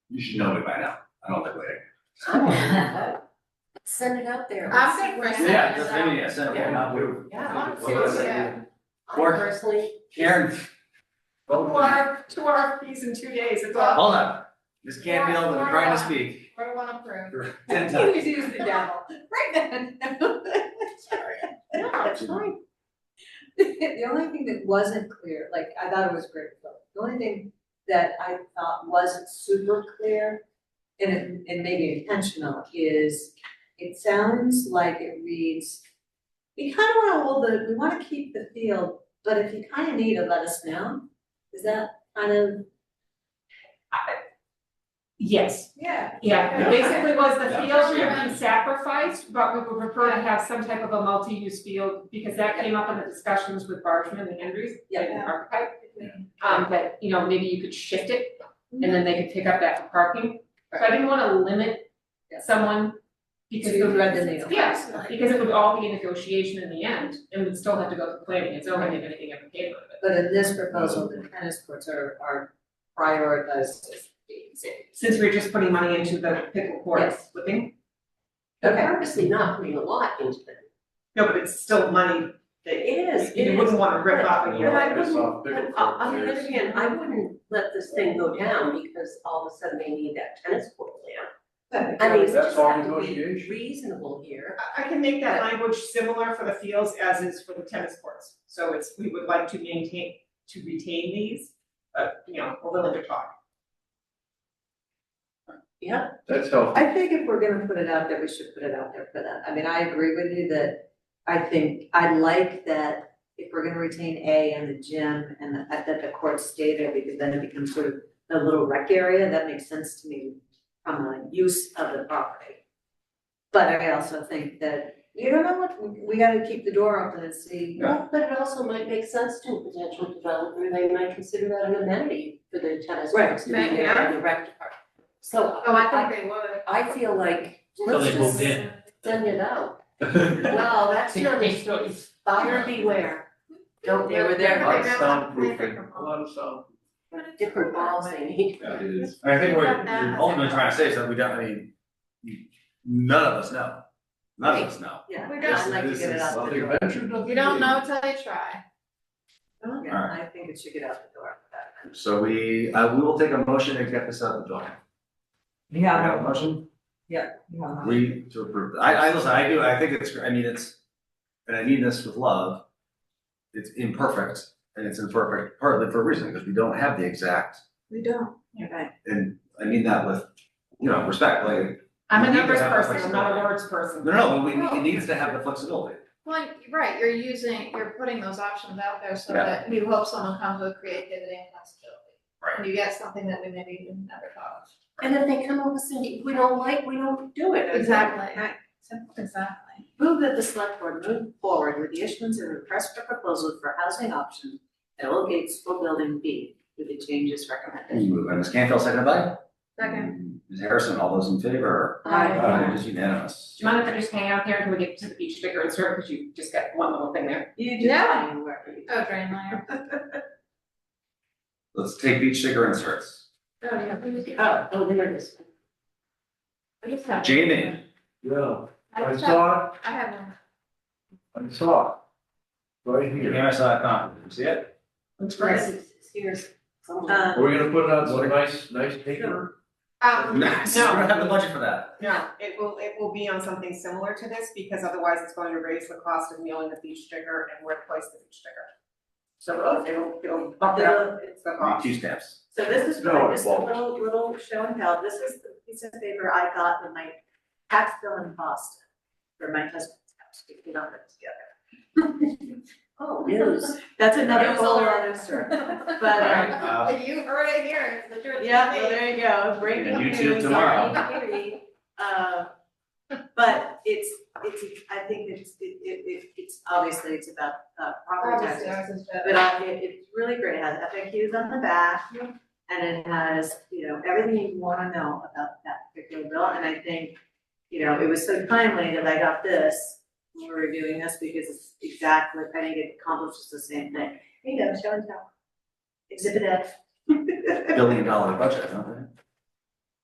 You should know it by now, I don't think later. Send it out there. I'm good for sending Yeah, it just out. maybe, yeah, send it, why not, we. Yeah, What was it? yeah. I Or- personally, Karen. Two Hold on, R, two RFPs in two days, it's all, hold on, Ms. Canfield, I'm trying to speak what do you wanna prove? for ten times. Please use the gavel, right then. no, it's fine. The only thing that wasn't clear, like, I thought it was great, but the only thing that I thought wasn't super clear, and it, and maybe intentional, is it sounds like it reads, we kind of want to hold the, we want to keep the field, but if you kind of need it, let us know. Is that kind of, Yes, Yeah. yeah, Yeah. basically was the Yeah. field remain sacrificed, but we would prefer to have some type of a multi-use field, because that came up in the discussions with Bargeman and Andrews, like yeah, the archetype. Um, that, you know, maybe you could shift it, and then they could pick up that for parking, so I didn't wanna limit Yeah. someone. Because it to would- thread the needle? Yes, because it would all be a negotiation in the end, and we'd still have to go to planning, it's only if anything ever came out of it. But in this proposal, the tennis courts are, are prioritized as being safe. Since we're just putting money into the pickle courts, would they? They're purposely not putting a lot into them. No, but it's still money that It is, it you is. wouldn't wanna rip up But and I you know. wouldn't, Microsoft but Pickle uh, on the Court, other hand, I wouldn't let this thing go down because all of a sudden they need that tennis court land. I mean, we That's just all have to be negotiation. reasonable here. I- I can make that language similar for the fields as is for the tennis courts. So it's, we would like to maintain, to retain these, but, you know, we're willing to talk. That's helpful. I think if we're gonna put it out there, we should put it out there for that. I mean, I agree with you that I think, I like that if we're gonna retain A and the gym and the- that the courts stay there, because then it becomes sort of a little rec area, that makes sense to me from a use of the property. But I also think that, you don't know what, we- we gotta keep the door open and see. Well, but it also might make sense to a potential developer, they might consider that an amenity for the tennis Right. courts to be there and the rec department. So Oh, I think they would. I feel like, So let's they moved just in. send it out. Well, that's another story, buyer beware, don't, they were there, Lots of soundproofing. A lot of sound. different balls they need. It is, I think we're we're ultimately trying to say is that we don't, I mean, none of us know, none of us know. Yeah, We I'd like to This- get it this out the Nothing door. ventured, nothing You don't gained. know till you try. Yeah, I think it should get out the door. So we, uh, we will take a motion and get this out of the door. We Yeah, have a motion, yeah. we to approve, I, I, listen, I do, I think it's, I mean, it's, and I mean this with love. It's imperfect, and it's imperfect partly for a reason, because we don't have the exact, We don't. and I mean that with, you know, respect, like, I'm We a need to numbers have a person, I'm not a flexibility. words person. no, no, we, it needs to have the flexibility. Well, right, you're using, you're putting those options out there so Yeah. that we hope someone comes with creativity and flexibility. Right. And you get something that we maybe even never thought of. And if they come over, Cindy, we don't like, we don't do it. Right. Simple, exactly. Move that the select board move forward with the issuance of a request for proposal for housing option at Old Gates School Building B with the changes recommended. Moved by Ms. Canfield, seconded by? Second. Ms. Harrison, all those in favor? Aye. It is unanimous. Do you mind if I just hang out there until we get to the beach bigger and serve, because you just got one little thing there? You do Yeah. do. Oh, drain layer. Let's take beach sticker inserts. Oh, yeah, where was it? Oh, oh, there it is. What is that? Jamie. Yeah, I I saw it, I have one. I saw it. Right here. I saw that comment. See it? Looks It's Here's um, 嗯 someone. We're we gonna put it on some nice, nice paper. Um, no, Nice. We don't have the budget for that. no, it will, it will be on something similar to this, because otherwise it's going to raise the cost of mailing the beach sticker and where to place the beach sticker. So it'll, it'll bump it up, it's the cost. Two steps. So this is No, what, it just a won't. little, little show and tell, this is the piece of paper I got when my tax bill in Boston for my husband's house, we put on it together. Oh, news. That's another Here's whole all- other story, but, All uh, right, uh, You heard it here, it's the truth. Yeah, well, there you go, breaking And news. YouTube tomorrow. sorry, Katie. Uh, But it's, it's, I think it's, it, it, it- it's, obviously it's about, uh, property Obviously, taxes. ours is But better. I, it, it's really great, it has FAQs on the back, and it has, you know, everything you wanna know about that particular bill, and I think, you know, it was so timely that I got this, when we were doing this, because it's exactly, I think it accomplishes the same thing. Here you go, show and tell. Exhibit F. billion dollar budget, don't